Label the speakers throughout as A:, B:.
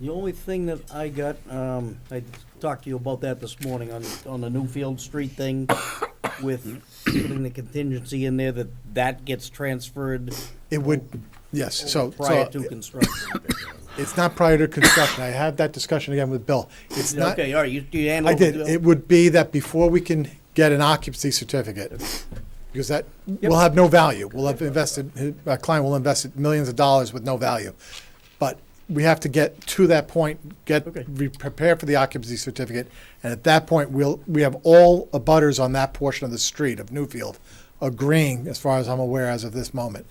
A: The only thing that I got, um, I talked to you about that this morning on, on the Newfield Street thing with putting the contingency in there that that gets transferred
B: It would, yes, so,
A: prior
B: so uh,
A: to construction.
B: it's not prior to construction. I had that discussion again with Bill. It's not,
A: Okay, all right, you, you handle.
B: I did, it would be that before we can get an occupancy certificate, because that will have no value. We'll have invested, our client will invest millions of dollars with no value. But we have to get to that point, get,
A: Okay.
B: we prepare for the occupancy certificate. And at that point, we'll, we have all abutters on that portion of the street of Newfield agreeing, as far as I'm aware as of this moment,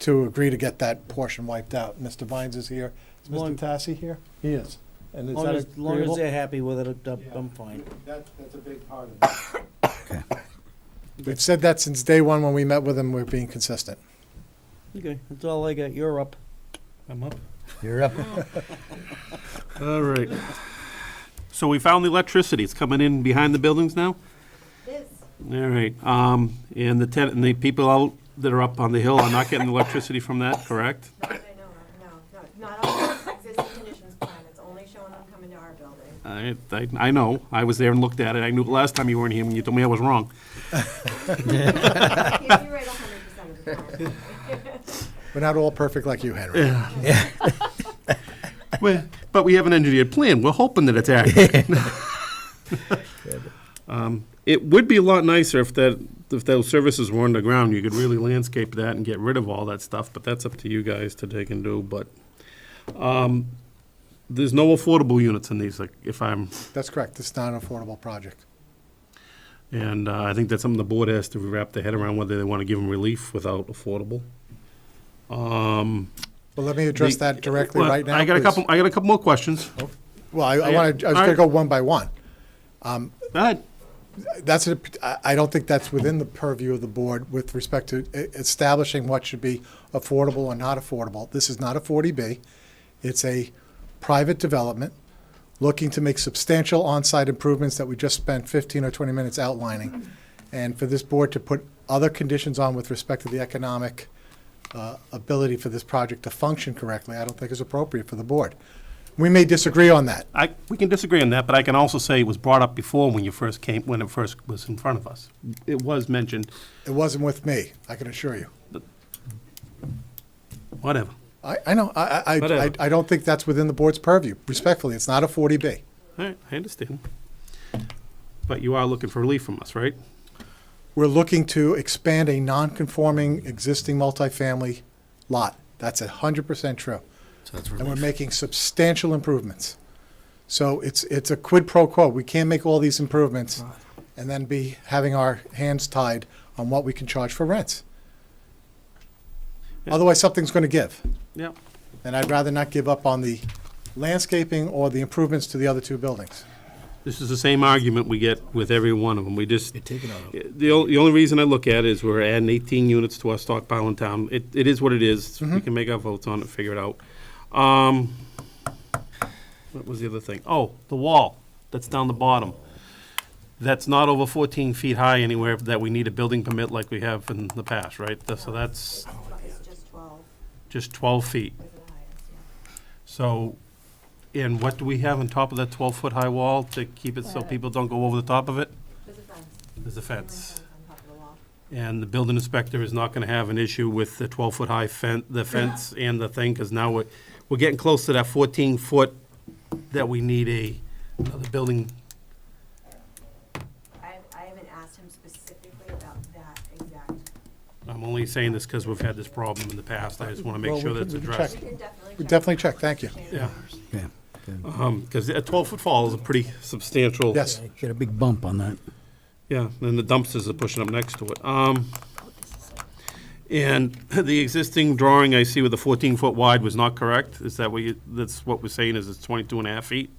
B: to agree to get that portion wiped out. Mr. Vines is here. Is Mr.
A: Long-
B: Tassi here? He is. And is
A: Long
B: that
A: as, long
B: agreeable?
A: as they're happy with it, I'm, I'm fine.
C: That, that's a big part of it.
B: We've said that since day one when we met with them, we're being consistent.
A: Okay, that's all I got. You're up.
D: I'm up.
E: You're up.
D: All right. So we found the electricity. It's coming in behind the buildings now?
F: This,
D: All right. Um, and the tenant, and the people out that are up on the hill are not getting the electricity from that, correct?
F: not that I know of, no, no, not all of the existing conditions plan, it's only showing them coming to our building.
D: I, I, I know. I was there and looked at it. I knew last time you weren't here when you told me I was wrong.
F: If You're right hundred percent of the time.
B: We're not all perfect like you, Henry.
D: Well, but we have an engineered plan. We're hoping that it's accurate. Um, It would be a lot nicer if that, if those services were underground. You could really landscape that and get rid of all that stuff, but that's up to you guys to take and do, but, um, there's no affordable units in these, like, if I'm,
B: That's correct. It's not an affordable project.
D: and uh, I think that's something the board has to wrap their head around, whether they want to give them relief without affordable. Um,
B: Well, let me address
D: the-
B: that directly
D: well,
B: right now.
D: I got a
B: please. Oh.
D: couple, I got a couple more questions.
B: Well, I, I
D: I-
B: want to, I was
D: all
B: going to go
D: right.
B: one by one.
D: All right.
B: That's, a- I I don't think that's within the purview of the board with respect to e- establishing what should be affordable or not affordable. This is not a 40B. It's a private development looking to make substantial on-site improvements that we just spent 15 or 20 minutes outlining. And for this board to put other conditions on with respect to the economic uh, ability for this project to function correctly, I don't think is appropriate for the board. We may disagree on that.
D: I, we can disagree on that, but I can also say it was brought up before when you first came, when it first was in front of us. It was mentioned,
B: It wasn't with me, I can assure you.
D: whatever.
B: I, I know, I, I- I, I,
D: Whatever.
B: I don't think that's within the board's purview, respectfully, it's not a forty B.
D: All right, I understand. But you are looking for relief from us, right?
B: We're looking to expand a non-conforming existing multifamily lot, that's a hundred percent true. And we're making substantial improvements. So it's, it's a quid pro quo, we can't make all these improvements and then be having our hands tied on what we can charge for rents.
D: Yeah.
B: Otherwise, something's gonna give,
D: Yeah.
B: and I'd rather not give up on the landscaping or the improvements to the other two buildings.
D: This is the same argument we get with every one of them. We just, the only, the only reason I look at it is we're adding 18 units to our stockpile in town. It, it is what it is. We can make our votes on it, figure it out. Um, what was the other thing? Oh, the wall that's down the bottom. That's not over 14 feet high anywhere that we need a building permit like we have in the past, right? That's- So that's
F: It's just twelve,
D: just 12 feet.
F: is the highest, yeah.
D: So, and what do we have on top of that 12-foot-high wall to keep it so people don't go over the top of it?
F: There's a fence.
D: There's a
F: There's a
D: fence.
F: fence On top of the wall.
D: And the building inspector is not gonna have an issue with the twelve-foot high fence, the fence and the thing, because now we're, we're getting close to that fourteen foot that we need a, another building.
F: I, I haven't asked him specifically about that exact,
D: I'm only saying this because we've had this problem in the past, I just wanna make
B: Well,
D: sure
B: we
D: that's
B: can- we can
D: addressed.
F: we can definitely check.
B: We definitely check, thank you.
D: Yeah,
E: Yeah.
D: um, because a twelve-foot fall is a pretty substantial.
B: Yes,
E: Get a big bump on that.
D: Yeah, and the dumpsters are pushing up next to it. Um, and the existing drawing I see with the fourteen-foot wide was not correct, is that what you, that's what we're saying, is it's twenty-two and a half feet?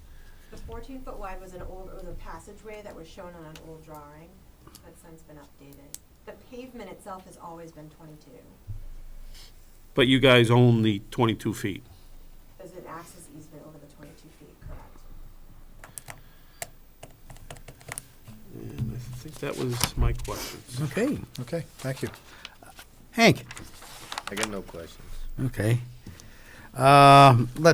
F: The fourteen foot wide was an old, was a passageway that was shown on an old drawing, that's since been updated. The pavement itself has always been twenty-two.
D: But you guys own the 22 feet.
F: There's an access easement over the twenty-two feet, correct?
D: And I think that was my questions.
E: Okay.
B: okay, thank you.
E: Hank?
C: I got no questions.
E: Okay. Um, Let's